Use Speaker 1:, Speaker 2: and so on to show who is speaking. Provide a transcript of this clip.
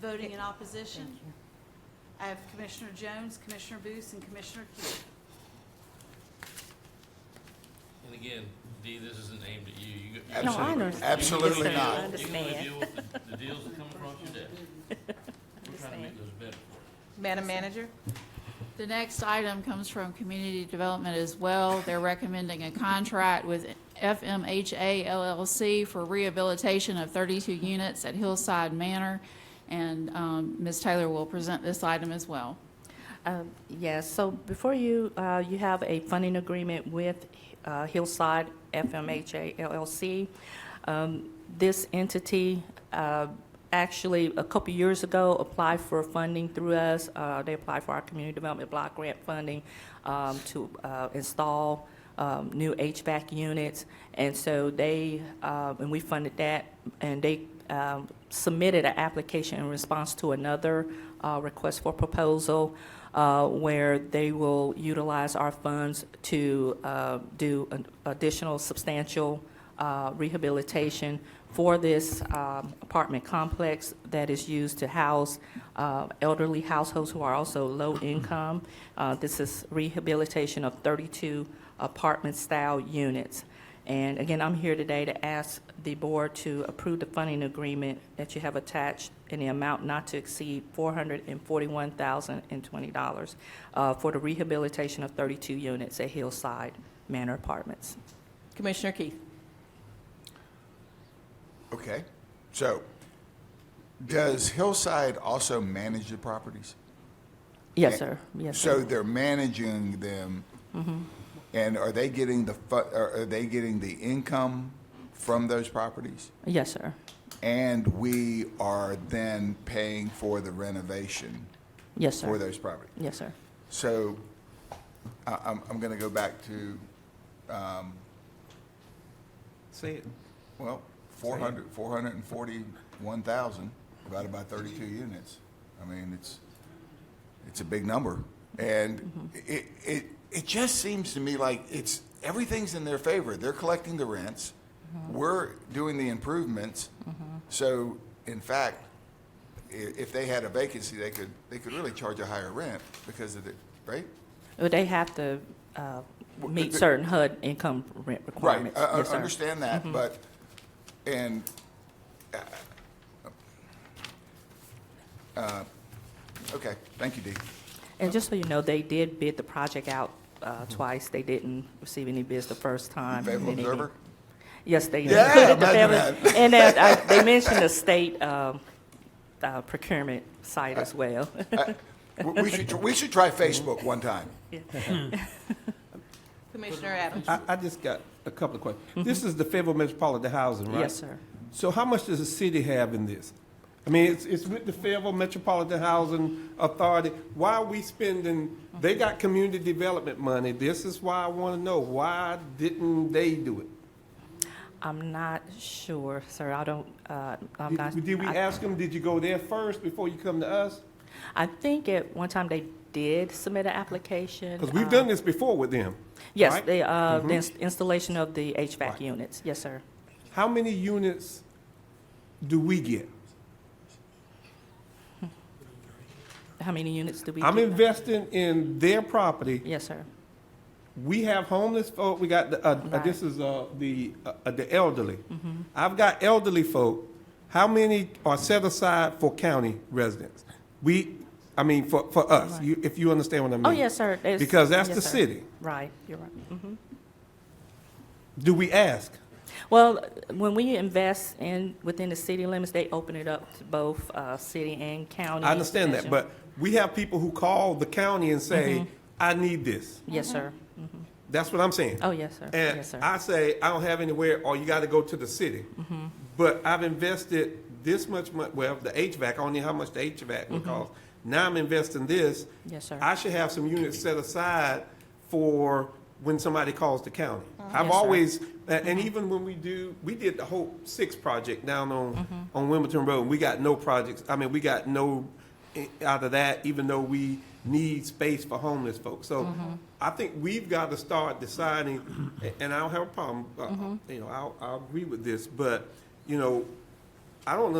Speaker 1: Voting in opposition, I have Commissioner Jones, Commissioner Booth, and Commissioner Keel.
Speaker 2: And again, Dee, this isn't aimed at you. You got- you
Speaker 3: No, I
Speaker 2: can-
Speaker 3: understand.
Speaker 4: Absolutely
Speaker 2: you can
Speaker 4: not.
Speaker 2: only
Speaker 3: I
Speaker 2: deal- You can only
Speaker 3: understand.
Speaker 2: deal with the- the deals that come across your desk. We're trying to make
Speaker 3: Understand.
Speaker 2: those better for
Speaker 5: Madam Manager?
Speaker 1: The next item comes from Community Development as well. They're recommending a contract with FMHA LLC for rehabilitation of 32 units at Hillside Manor, and um, Ms. Taylor will present this item as well.
Speaker 3: Um, Yes, so before you, uh, you have a funding agreement with uh, Hillside FMHA LLC. Um, This entity uh, actually, a couple years ago, applied for funding through us. Uh, They applied for our community development block grant funding um, to uh, install um, new HVAC units. And so they, uh, and we funded that, and they um, submitted an application in response to another uh, request for proposal uh, where they will utilize our funds to uh, do an additional substantial uh, rehabilitation for this um, apartment complex that is used to house uh, elderly households who are also low income. Uh, This is rehabilitation of 32 apartment-style units. And again, I'm here today to ask the board to approve the funding agreement that you have attached in the amount not to exceed $441,020 uh, for the rehabilitation of 32 units at Hillside Manor Apartments.
Speaker 5: Commissioner Keith?
Speaker 4: Okay, so does Hillside also manage the properties?
Speaker 3: Yes, sir. Yes,
Speaker 4: So
Speaker 3: sir.
Speaker 4: they're managing them, and are they getting the, fu- are are they getting the income from those properties?
Speaker 3: Yes, sir.
Speaker 4: And we are then paying for the renovation
Speaker 3: Yes,
Speaker 4: for
Speaker 3: sir.
Speaker 4: those properties?
Speaker 3: Yes, sir.
Speaker 4: So I- I'm, I'm going to go back to, um,
Speaker 6: Say it.
Speaker 4: well, 400, 441,000 divided by 32 units. I mean, it's, it's a big number. And it, it, it just seems to me like it's, everything's in their favor. They're collecting the rents. We're doing the improvements. So in fact, i- if they had a vacancy, they could, they could really charge a higher rent because of the, right?
Speaker 3: Well, They have to uh,
Speaker 4: Well,
Speaker 3: meet
Speaker 4: the-
Speaker 3: certain HUD income rent
Speaker 4: Right,
Speaker 3: requirements.
Speaker 4: I, I
Speaker 3: Yes, sir. Mm-hmm.
Speaker 4: understand that, but, and, uh, uh, okay, thank you, Dee.
Speaker 3: And just so you know, they did bid the project out uh, twice. They didn't receive any bids the first time.
Speaker 4: Favorable
Speaker 3: and then they-
Speaker 4: observer?
Speaker 3: Yes, they
Speaker 4: Yeah,
Speaker 3: included the
Speaker 4: imagine
Speaker 3: favorable. And that, uh, they mentioned the state um, uh, procurement site as well.
Speaker 4: We- We should, we should try
Speaker 3: Mm-hmm.
Speaker 4: Facebook one time.
Speaker 5: Commissioner Adams?
Speaker 6: I, I just got a couple of questions. This is the Fayetteville Metropolitan Housing, right?
Speaker 3: Mm-hmm. Yes, sir.
Speaker 6: So how much does the city have in this? I mean, it's, it's with the Fayetteville Metropolitan Housing Authority. Why are we spending, they got community development money. This is why I want to know, why didn't they do it?
Speaker 3: I'm not sure, sir. I don't, uh, I'm not.
Speaker 6: Did did we
Speaker 3: I-
Speaker 6: ask them, did you go there first before you come to us?
Speaker 3: I think at one time they did submit an application.
Speaker 6: Because we've
Speaker 3: um,
Speaker 6: done this before with them.
Speaker 3: Yes,
Speaker 6: right? Mm-hmm.
Speaker 3: the, uh, the ins- installation of the HVAC
Speaker 6: Right.
Speaker 3: units. Yes, sir.
Speaker 6: How many units do we get?
Speaker 3: How many units do we?
Speaker 6: I'm
Speaker 3: get now?
Speaker 6: investing in their property.
Speaker 3: Yes, sir.
Speaker 6: We have homeless folk. We got the, uh, uh,
Speaker 3: Right. Mm-hmm.
Speaker 6: this is uh, the uh, uh, the elderly. I've got elderly folk. How many are set aside for county residents? We, I mean, for, for us,
Speaker 3: Right.
Speaker 6: you, if you understand what I mean.
Speaker 3: Oh, yes, sir. It's-
Speaker 6: Because that's
Speaker 3: yes,
Speaker 6: the
Speaker 3: sir.
Speaker 6: city.
Speaker 3: Right, you're right. Mhm.
Speaker 6: Do we ask?
Speaker 3: Well, when we invest in, within the city limits, they open it up to both uh, city and county.
Speaker 6: I understand that,
Speaker 3: extension.
Speaker 6: but we have people who call the county and say,
Speaker 3: Mm-hmm.
Speaker 6: "I need this."
Speaker 3: Yes, sir.
Speaker 6: That's what I'm saying.
Speaker 3: Oh, yes, sir.
Speaker 6: Mm-hmm. And
Speaker 3: Yes, sir.
Speaker 6: I say I don't have anywhere, or you got to go to the city.
Speaker 3: Mm-hmm.
Speaker 6: But I've invested this much money. Well, the HVAC. I don't know how much the HVAC would cost. Now I'm investing this.
Speaker 3: Mm-hmm. Yes, sir.
Speaker 6: I should have some units set aside for when somebody calls the county. I've
Speaker 3: Mm-hmm. Yes, sir. Mm-hmm.
Speaker 6: always, a- and even when we do, we did the whole six project down on
Speaker 3: Mm-hmm.
Speaker 6: on Wilmington Road. and We got no projects. I mean, we got no i- out of that, even though we need space for homeless folks. So
Speaker 3: Mm-hmm.
Speaker 6: I think we've got to start deciding, a- and I
Speaker 3: Mm-hmm.
Speaker 6: don't have a problem. Uh, You know, I'll, I'll agree with this, but you know, I don't.